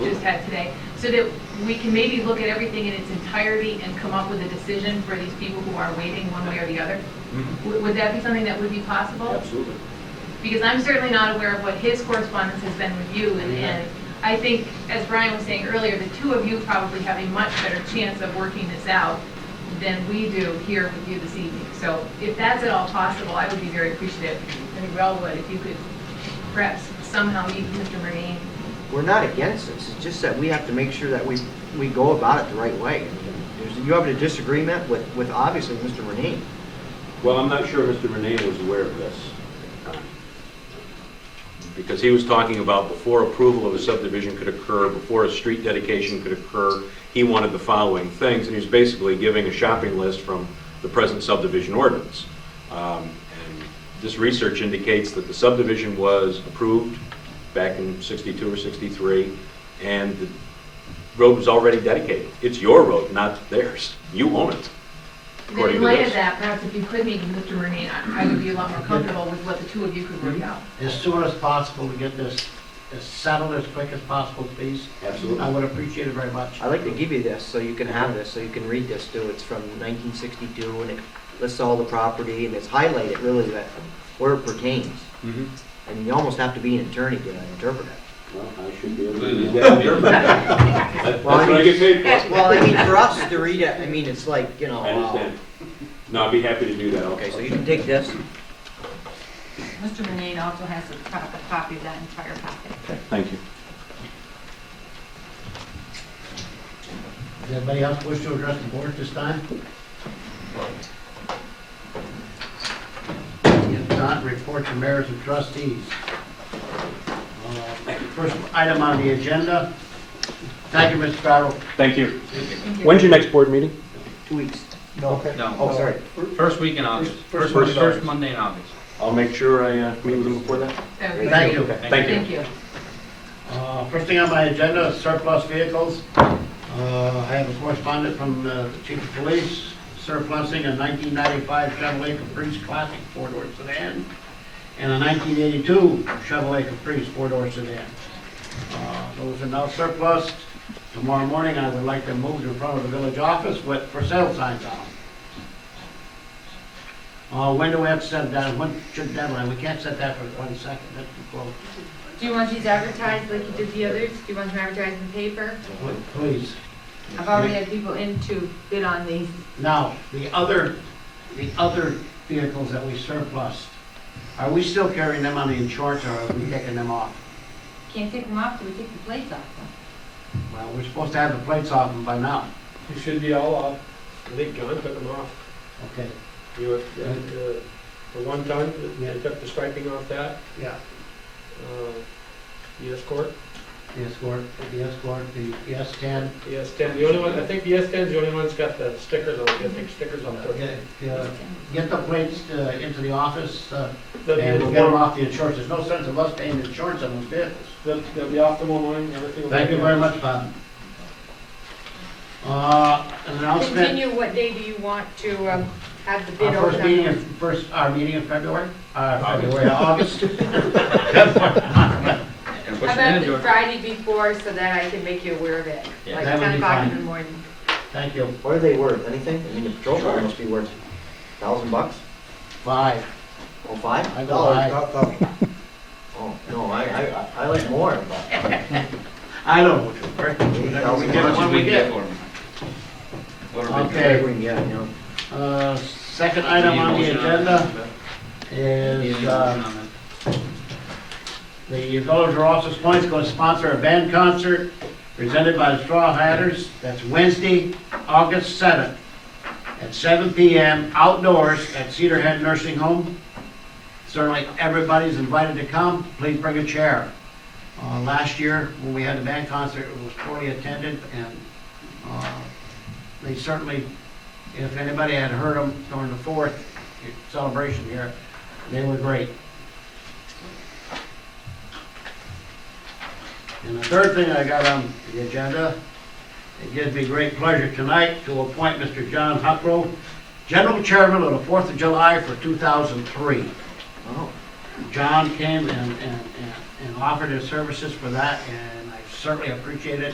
we've had today, so that we can maybe look at everything in its entirety and come up with a decision for these people who are waiting one way or the other? Mhm. Would would that be something that would be possible? Absolutely. Because I'm certainly not aware of what his correspondence has been with you, and- Yeah. and I think, as Brian was saying earlier, the two of you probably have a much better chance of working this out than we do here with you this evening. So if that's at all possible, I would be very appreciative, I think we all would, if you could perhaps somehow meet Mr. Murnane We're not against this, it's just that we have to make sure that we, we go about it the right way. There's- You have a disagreement with, with obviously Mr. Renee. Well, I'm not sure Mr. Renee was aware of this. uh, Because he was talking about before approval of a subdivision could occur, before a street dedication could occur, he wanted the following things, and he was basically giving a shopping list from the present subdivision ordinance. Um, and This research indicates that the subdivision was approved back in 62 or 63, and the road was already dedicated. It's your road, not theirs. You own it, Then according in to light of this. that, perhaps if you could meet with Mr. Murnane, I I would be a lot more comfortable with what the two of you could work out. as soon as possible to get this as settled as quick as possible, please. Absolutely. I would appreciate it very much. I'd like to give you this, so you can have this, so you can read this too. It's from 1962, and it lists all the property, and it's highlighted really that, where it pertains. Mhm. And you almost have to be an attorney to interpret it. Well, I should be able to do Well, that. That's what I get paid for. Well, I mean, for us to read it, I mean, it's like, you know. I uh, understand. No, I'd be happy to do that. I'll- Okay, so you can take this. Mr. Renee also has a co- a copy of that entire packet. Thank you. Does anybody else wish to address the board at this time? If not, report to mayors and trustees. Uh, First item on the agenda. Thank you, Mr. Farrell. Thank you. When's your next board meeting? Two weeks. Oh, No, sorry. first week in August, First- first, first first Monday in August. I'll make sure I uh, meet with them before that. That would be Thank you. Thank you. Thank you. Uh, First thing on my agenda is surplus vehicles. Uh, I have a correspondent from uh, the chief of police surplusing a 1995 Chevrolet Caprice Classic four-door sedan and a 1982 Chevrolet Caprice four-door sedan. Uh, Those are now surplus. Tomorrow morning, I would like them moved in front of the village office with for sale signs on them. Uh, When do we have to set that, when should deadline? We can't set that for 22nd, that's too close. Do you want these advertised like you did the others? Do you want them advertised in the paper? Please. I've already had people in to bid on these. Now, the other, the other vehicles that we surplus, are we still carrying them on the insurance or are we taking them off? Can't take them off till we take the plates off them. Well, we're supposed to have the plates off them by now. You should be all off. I think John took them off. Okay. You, were- uh, the one ton, they took the striping off that, Yeah, uh, the Escort, the Escort, the Escort, the S10. the S10. The only one, I think the S10's the only one that's got the stickers on it, the big stickers on it. Get uh, get the plates uh, into the office uh, They'll be- and we'll get them off the insurance. There's no sense of us paying insurance on those vehicles. They'll they'll be off tomorrow morning, everything will be... Thank you very much, Bob. Uh, An announcement. Continue, what day do you want to um, have the bid Our open? first meeting, in- on? first, our meeting in February, uh, February, August. That And push How it in, about George. the Friday before so that I can make you aware of it? Yeah. Like That would 10 be o'clock fine. in the morning. Thank you. What are they worth? Anything? I mean, the patrol car must be worth a thousand bucks? Five. Oh, five? I go Oh, high. Oh, no, I, I, I like more, but I don't. know what to- How We much get did what we get. for them? What are whatever we doing? Okay, we can get, you know. uh, second Any item on the motion that? agenda Any is, motion uh, on that? the Village of Rouse's Point is going to sponsor a band concert presented by the Straw Hatters. That's Wednesday, August seventh, at seven PM outdoors at Cedar Head Nursing Home. Certainly, everybody's invited to come. Please bring a chair. Uh, Last year, when we had the band concert, it was poorly attended, and uh, they certainly, if anybody had heard them during the fourth celebration here, they were great. And the third thing I got on the agenda, it gives me great pleasure tonight to appoint Mr. John Huckrow, General Chairman of the Fourth of July for 2003. Oh, John came and, and, and- and offered his services for that, and I certainly appreciate it.